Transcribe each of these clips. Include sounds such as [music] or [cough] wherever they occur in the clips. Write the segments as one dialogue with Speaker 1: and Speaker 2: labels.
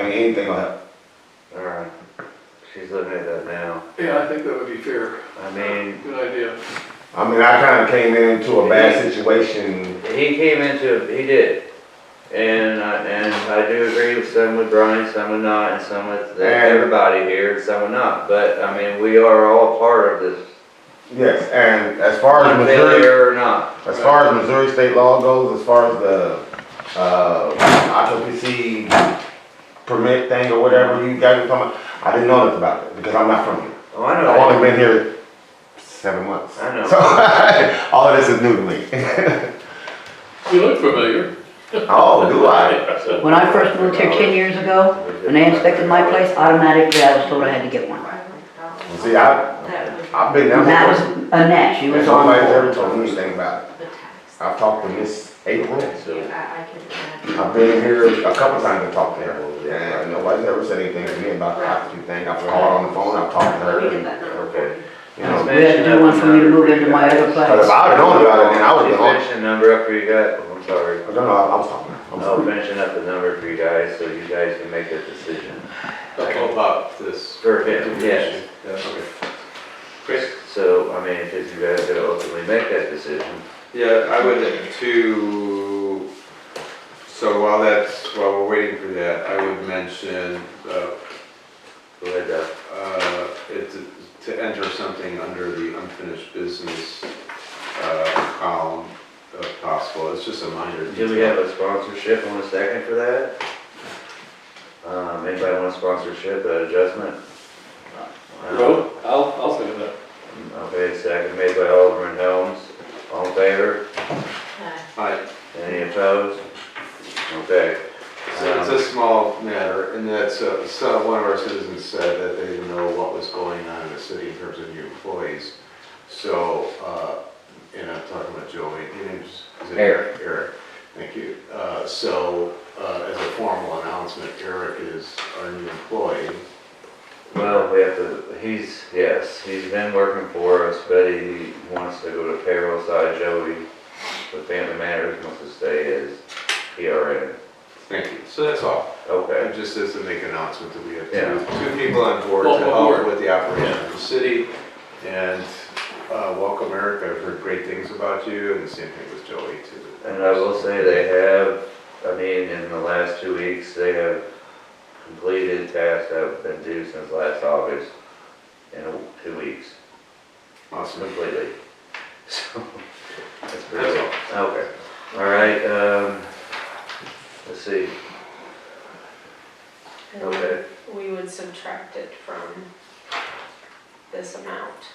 Speaker 1: anything will help.
Speaker 2: All right, she's looking at that now.
Speaker 3: Yeah, I think that would be fair.
Speaker 2: I mean,
Speaker 3: Good idea.
Speaker 1: I mean, I kind of came into a bad situation.
Speaker 2: he came into, he did. And, I- and I do agree with some with Brian, some with not, and some with everybody here, and some with not. But, I mean, we are all part of this,
Speaker 1: Yes, and as far as Missouri,
Speaker 2: failure or not.
Speaker 1: as far as Missouri state law goes, as far as the, uh, occupancy permit thing or whatever you guys were talking about, I didn't know nothing about it because I'm not from here.
Speaker 2: Oh, I
Speaker 1: I've only
Speaker 2: know,
Speaker 1: been here seven months.
Speaker 2: I know.
Speaker 1: So, [laughs] all of this is new to me. [laughs]
Speaker 3: You look familiar.
Speaker 1: Oh, do I?
Speaker 4: When I first moved here ten years ago, when they inspected my place, automatically I was told I had to get one.
Speaker 1: See, I, I've been down
Speaker 4: And that was
Speaker 1: here.
Speaker 4: Annette, she
Speaker 1: And
Speaker 4: was on
Speaker 1: nobody's ever
Speaker 4: board.
Speaker 1: told me anything about it. I've talked to Miss April. I've
Speaker 5: I've
Speaker 1: been here a couple times to talk to her, and nobody's ever said anything to me about the occupancy thing. I've called on the phone, I've talked to her, and,
Speaker 2: Okay.
Speaker 1: you know.
Speaker 4: We had to do one for me to move into my other
Speaker 1: But if
Speaker 4: place.
Speaker 1: I had known about it, then I would have
Speaker 2: She's
Speaker 1: been on.
Speaker 2: finishing number up for you guys, Oh, I'm sorry.
Speaker 1: No, no, I was talking. I'm
Speaker 2: I'll
Speaker 1: sorry.
Speaker 2: finishing up the number for you guys, so you guys can make a decision.
Speaker 6: About this.
Speaker 2: For him, yes.
Speaker 6: Yeah, okay. Chris?
Speaker 2: So, I mean, because you guys gotta ultimately make that decision.
Speaker 6: Yeah, I would to, so while that's, while we're waiting for that, I would mention, uh,
Speaker 2: Go ahead, Doug.
Speaker 6: uh, it, to enter something under the unfinished business, uh, column if possible. It's just a minor
Speaker 2: Do we have
Speaker 6: detail.
Speaker 2: a sponsorship on a second for that? Um, anybody want a sponsorship, uh, adjustment? Um,
Speaker 3: Well, I'll, I'll say that.
Speaker 2: Okay, second made by Alderman Helms, all in favor,
Speaker 6: I,
Speaker 2: any opposed? Okay,
Speaker 6: So It's a small matter, and that's, uh, so one of our citizens said that they didn't know what was going on in the city in terms of new employees. So, uh, and I'm talking about Joey, his name's. is it
Speaker 2: Eric.
Speaker 6: Eric, thank you. Uh, So, uh, as a formal announcement, Eric is our new employee.
Speaker 2: well, we have to, he's, yes, he's been working for us, but he wants to go to payroll side, Joey, the family matters, wants to stay as PRN.
Speaker 6: Thank you. So that's all.
Speaker 2: Okay,
Speaker 6: And just as to make an announcement that we have
Speaker 2: Yeah.
Speaker 6: two, two people on board to
Speaker 3: Welcome
Speaker 6: help
Speaker 3: aboard.
Speaker 6: with the operation of the city. And, uh, welcome Eric, I've heard great things about you, and the same thing with Joey too.
Speaker 2: And I will say they have, I mean, in the last two weeks, they have completed tasks that have been due since last August in a- two weeks,
Speaker 6: Awesome.
Speaker 2: completely. [laughs] So, that's pretty
Speaker 6: That's
Speaker 2: good. Okay, all right, um, let's see, okay,
Speaker 5: We would subtract it from this amount.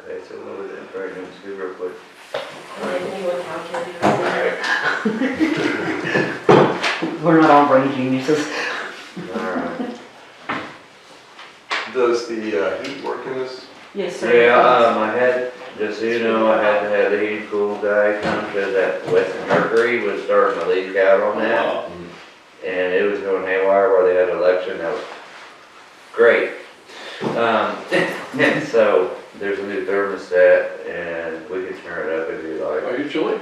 Speaker 2: okay, so what was it, Brandon, let's do real quick.
Speaker 5: And then you would calculate. it.
Speaker 4: We're not all brain geniuses.
Speaker 2: All right.
Speaker 6: Does the uh, heat work in this?
Speaker 5: Yes, sir.
Speaker 2: Yeah, um, I had, just so you know, I had to have the heat cool guy come, cause that Western Mercury was starting to leak out on that.
Speaker 3: Mm-hmm.
Speaker 2: and it was going haywire where they had an election. That was great. Um, [laughs] and so there's a new thermostat, and we can turn it up if you like.
Speaker 3: Are you chilly?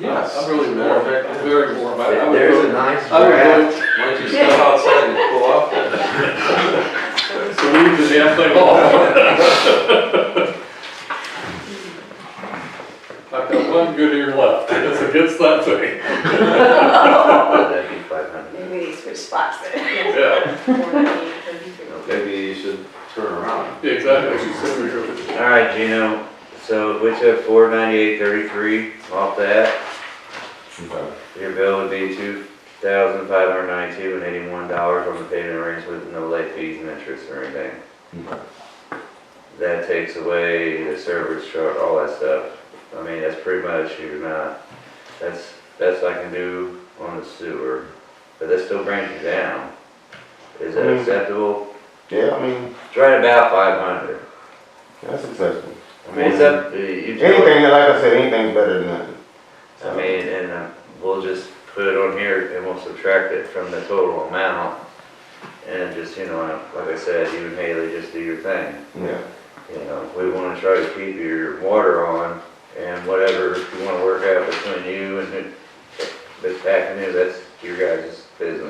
Speaker 6: Yes.
Speaker 3: I'm really warm, I'm very warm. I- I would
Speaker 2: There's
Speaker 3: go-
Speaker 2: a nice
Speaker 3: I would
Speaker 2: draft.
Speaker 3: go
Speaker 6: Why don't you step outside and cool off then?
Speaker 3: to leave the damn thing off. I've got one good ear left, and it's against that thing.
Speaker 2: That'd be 500.
Speaker 5: Maybe they switch spots then.
Speaker 3: Yeah,
Speaker 2: Okay.
Speaker 6: Maybe you should turn around.
Speaker 3: exactly, she's sitting here.
Speaker 2: All right, Gino. So if we took 498.33 off that, your bill would be two thousand five hundred ninety-two and eighty-one dollars on the payment arrangement with no late fees and interest or anything. that takes away the service charge, all that stuff. I mean, that's pretty much, you're not, that's, that's I can do on the sewer, but that still brings you down. Is that
Speaker 1: Mhm.
Speaker 2: acceptable?
Speaker 1: Yeah, I mean,
Speaker 2: It's right about five hundred.
Speaker 1: that's acceptable.
Speaker 2: I mean, it's up, you know,
Speaker 1: Anything, like I said, anything's better than nothing.
Speaker 2: I mean, and uh, we'll just put it on here and we'll subtract it from the total amount. And just, you know, like I said, you and Haley, just do your thing.
Speaker 1: Yeah,
Speaker 2: you know, we wanna try to keep your water on and whatever you wanna work out between you and the, the back end, that's your guys' business.